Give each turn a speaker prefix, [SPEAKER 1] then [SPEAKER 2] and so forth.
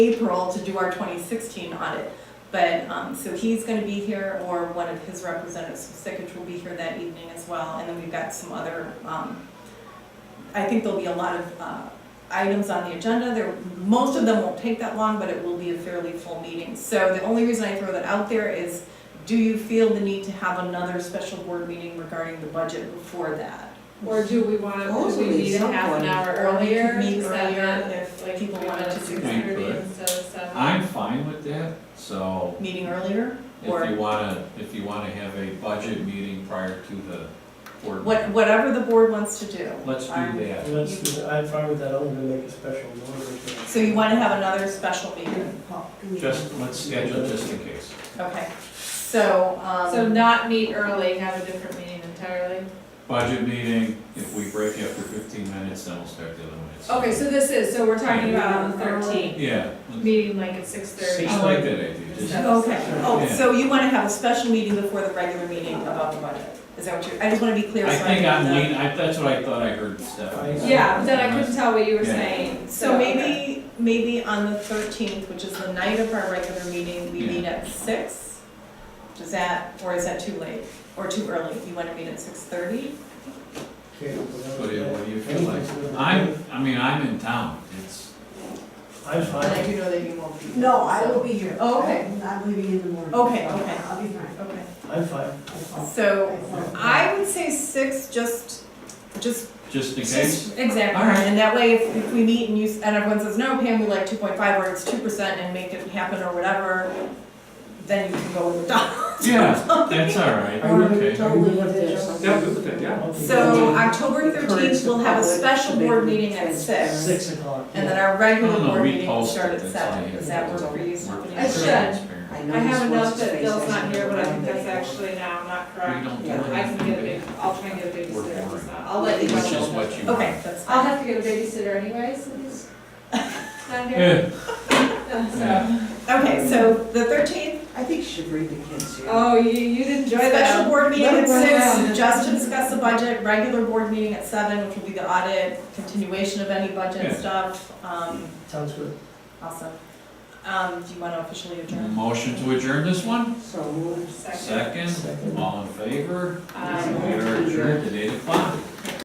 [SPEAKER 1] April to do our 2016 audit. But, um, so he's gonna be here, or one of his representatives from Sickich will be here that evening as well. And then we've got some other, um, I think there'll be a lot of, uh, items on the agenda. There, most of them won't take that long, but it will be a fairly full meeting. So the only reason I throw that out there is, do you feel the need to have another special board meeting regarding the budget before that?
[SPEAKER 2] Or do we want, to? do we
[SPEAKER 3] Supposedly
[SPEAKER 2] need a half an
[SPEAKER 3] someone-
[SPEAKER 2] hour
[SPEAKER 1] Or we could
[SPEAKER 2] earlier?
[SPEAKER 1] meet
[SPEAKER 2] Is that
[SPEAKER 1] earlier
[SPEAKER 2] not-
[SPEAKER 1] if
[SPEAKER 2] like,
[SPEAKER 1] people
[SPEAKER 2] we
[SPEAKER 1] wanted
[SPEAKER 2] wanna
[SPEAKER 1] to do
[SPEAKER 2] six
[SPEAKER 1] that.
[SPEAKER 2] thirty
[SPEAKER 4] Right.
[SPEAKER 2] instead of seven?
[SPEAKER 4] I'm fine with that, so
[SPEAKER 1] Meeting earlier? Or-
[SPEAKER 4] if you wanna, if you wanna have a budget meeting prior to the board.
[SPEAKER 1] What, whatever the board wants to do. Um,
[SPEAKER 4] Let's do
[SPEAKER 1] I'm-
[SPEAKER 4] that.
[SPEAKER 5] Let's, do- I'm fine with that, I'm gonna make a special note of it.
[SPEAKER 1] So you want to have another special meeting?
[SPEAKER 4] Just, let's schedule just in case.
[SPEAKER 1] Okay, so,
[SPEAKER 2] So
[SPEAKER 1] um,
[SPEAKER 2] not meet early, have a different meeting entirely?
[SPEAKER 4] Budget meeting, if we break after fifteen minutes, then we'll start the other minutes.
[SPEAKER 2] Okay, so this is, so we're talking about on the thirteenth,
[SPEAKER 4] Yeah, let's-
[SPEAKER 2] meeting like at six thirty.
[SPEAKER 4] I like that idea, just,
[SPEAKER 2] Yeah.
[SPEAKER 1] okay, oh,
[SPEAKER 4] Yeah.
[SPEAKER 1] so you want to have a special meeting before the regular meeting about the budget? Is that what you're, I just want to be clear.
[SPEAKER 4] I
[SPEAKER 1] so
[SPEAKER 4] think
[SPEAKER 1] can-
[SPEAKER 4] I'm lean, I, that's what I thought I heard Stephanie. say.
[SPEAKER 2] Yeah, but then I couldn't tell what you were
[SPEAKER 4] Yeah.
[SPEAKER 2] saying,
[SPEAKER 1] So maybe, maybe on the thirteenth, which is the night of our regular meeting, we
[SPEAKER 4] Yeah.
[SPEAKER 1] meet at six? Does that, or is that too late, or too early? You want to meet at six thirty?
[SPEAKER 5] Okay,
[SPEAKER 4] What do you,
[SPEAKER 5] well,
[SPEAKER 4] what do you feel like? I'm, I mean, I'm in town, it's,
[SPEAKER 5] I'm fine,
[SPEAKER 1] do know that you won't be. here,
[SPEAKER 3] No, I
[SPEAKER 1] so-
[SPEAKER 3] will be here.
[SPEAKER 1] Oh, okay.
[SPEAKER 3] I'm- I'm leaving in the morning.
[SPEAKER 1] Okay, okay.
[SPEAKER 3] I'll be fine.
[SPEAKER 1] Okay,
[SPEAKER 5] I'm fine.
[SPEAKER 1] so I would say six, just, just
[SPEAKER 4] just in case.
[SPEAKER 1] Just- Exactly,
[SPEAKER 4] All right.
[SPEAKER 1] and that way, if, if we meet and you, s- and everyone says, no, Pam, we like two point five, or it's two percent, and make it happen, or whatever, then you can go with the dollar.
[SPEAKER 4] Yeah, that's all right, okay.
[SPEAKER 3] Totally digital.
[SPEAKER 6] Yeah, good with that, yeah.
[SPEAKER 1] So, October thirteenth, we'll have a
[SPEAKER 3] Encourage the
[SPEAKER 1] special
[SPEAKER 3] public to
[SPEAKER 1] board
[SPEAKER 3] make
[SPEAKER 1] meeting at
[SPEAKER 3] transparent.
[SPEAKER 1] six,
[SPEAKER 5] Six o'clock.
[SPEAKER 1] and then our regular
[SPEAKER 4] No, no,
[SPEAKER 1] board
[SPEAKER 4] we
[SPEAKER 1] meeting will
[SPEAKER 4] post
[SPEAKER 1] start at
[SPEAKER 4] it, that's
[SPEAKER 1] seven,
[SPEAKER 4] fine.
[SPEAKER 1] is that work for you, Stephanie?
[SPEAKER 2] I should.
[SPEAKER 3] I
[SPEAKER 2] I have
[SPEAKER 3] noticed
[SPEAKER 2] enough
[SPEAKER 3] what's
[SPEAKER 2] that
[SPEAKER 3] his
[SPEAKER 2] Bill's
[SPEAKER 3] face
[SPEAKER 2] not
[SPEAKER 3] isn't
[SPEAKER 2] here, but I think
[SPEAKER 3] around
[SPEAKER 2] that's
[SPEAKER 3] anymore.
[SPEAKER 2] actually now not
[SPEAKER 4] We
[SPEAKER 2] correct.
[SPEAKER 4] don't do
[SPEAKER 3] Yeah,
[SPEAKER 2] I can get a
[SPEAKER 4] it.
[SPEAKER 2] big, I'll try and get a babysitter,
[SPEAKER 4] We're
[SPEAKER 2] so I'll let you
[SPEAKER 4] Which
[SPEAKER 2] know.
[SPEAKER 4] is what you want.
[SPEAKER 1] Okay, that's
[SPEAKER 2] I'll
[SPEAKER 1] fine.
[SPEAKER 2] have to get a babysitter anyway, so he's not here.
[SPEAKER 4] Yeah,
[SPEAKER 2] So-
[SPEAKER 4] yeah.
[SPEAKER 1] Okay, so the thirteenth,
[SPEAKER 3] I think she should bring the kids here.
[SPEAKER 2] Oh, you, you didn't enjoy
[SPEAKER 1] special
[SPEAKER 2] that.
[SPEAKER 1] board meeting at
[SPEAKER 3] Let it run
[SPEAKER 1] six,
[SPEAKER 3] down.
[SPEAKER 1] just to discuss the budget, regular board meeting at seven, which will be the audit, continuation of any budget
[SPEAKER 4] Yeah.
[SPEAKER 1] stuff, um,
[SPEAKER 5] Sounds good.
[SPEAKER 1] Awesome. Um, do you want to officially adjourn?
[SPEAKER 4] Motion to adjourn this one?
[SPEAKER 3] So moved.
[SPEAKER 2] Second.
[SPEAKER 4] Second, all in favor?
[SPEAKER 2] Um,
[SPEAKER 4] We are adjourned at eight o'clock.